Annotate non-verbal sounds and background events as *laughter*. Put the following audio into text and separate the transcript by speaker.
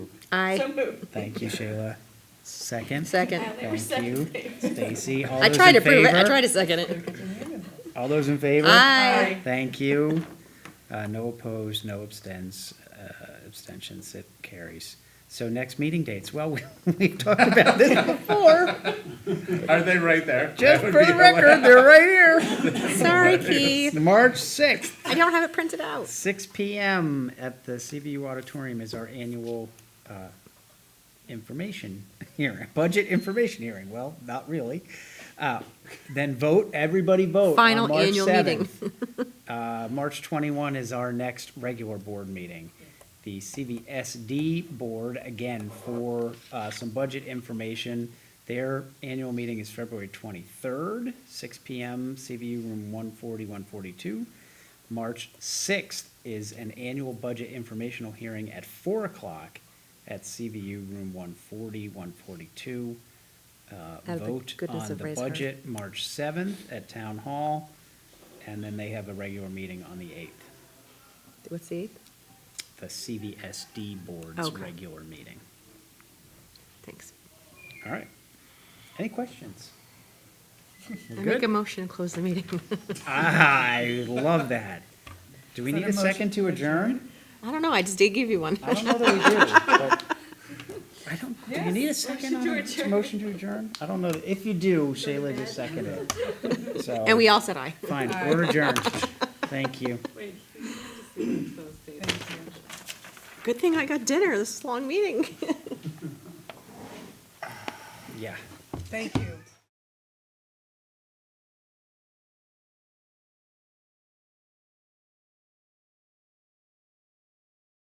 Speaker 1: So
Speaker 2: Aye.
Speaker 1: moved.
Speaker 3: Thank you, Shayla. Second?
Speaker 2: Second.
Speaker 1: Uh, they were
Speaker 3: Thank you,
Speaker 1: second.
Speaker 3: Stacy. All
Speaker 2: I
Speaker 3: those
Speaker 2: tried to
Speaker 3: in
Speaker 2: prove it. I
Speaker 3: favor?
Speaker 2: tried to second it.
Speaker 3: All those in favor?
Speaker 2: Aye.
Speaker 3: Thank you. Uh, no opposed, no abstens, uh, abstentions, it carries. So next meeting dates, well, *laughs* we, we talked about this before,
Speaker 4: Are they right there?
Speaker 3: just
Speaker 4: That
Speaker 3: for
Speaker 4: would be
Speaker 3: the record, they're right here.
Speaker 2: Sorry, Keith.
Speaker 3: March sixth,
Speaker 2: I don't have it printed out.
Speaker 3: six P M at the C V U auditorium is our annual, uh, information hearing, *laughs* budget information hearing, well, not really. Uh, then vote, everybody vote on
Speaker 2: Final
Speaker 3: March
Speaker 2: annual meeting.
Speaker 3: 7th. *laughs* Uh, March twenty-one is our next regular board meeting. The CVSD board, again, for, uh, some budget information. Their annual meeting is February twenty-third, six P M, CVU room 140, 142. March sixth is an annual budget informational hearing at four o'clock at CVU room 140, 142. Uh,
Speaker 2: Out of the
Speaker 3: vote
Speaker 2: goodness
Speaker 3: on
Speaker 2: of
Speaker 3: the
Speaker 2: Ray's heart.
Speaker 3: budget March seventh at town hall, and then they have a regular meeting on the eighth,
Speaker 2: What's the eighth?
Speaker 3: the CVSD board's
Speaker 2: Okay.
Speaker 3: regular meeting.
Speaker 2: Thanks.
Speaker 3: All right. Any
Speaker 2: *laughs*
Speaker 3: questions? We're
Speaker 2: I make a
Speaker 3: Good?
Speaker 2: motion to close the meeting. *laughs*
Speaker 3: I love that. Do we need a second to adjourn?
Speaker 2: I don't know. I just did give you one.
Speaker 3: I don't know that we do, but I don't, do we need a
Speaker 1: Yes,
Speaker 3: second on
Speaker 1: motion to
Speaker 3: a
Speaker 1: adjourn.
Speaker 3: motion to adjourn? I don't know, if you do, Shayla just seconded
Speaker 2: *laughs*
Speaker 3: it, so.
Speaker 2: And we all said aye.
Speaker 3: Fine, we're adjourned, thank you.
Speaker 1: Wait, we need to see those dates.
Speaker 2: Good thing I got dinner. This is a long meeting.
Speaker 3: Yeah.
Speaker 5: Thank you.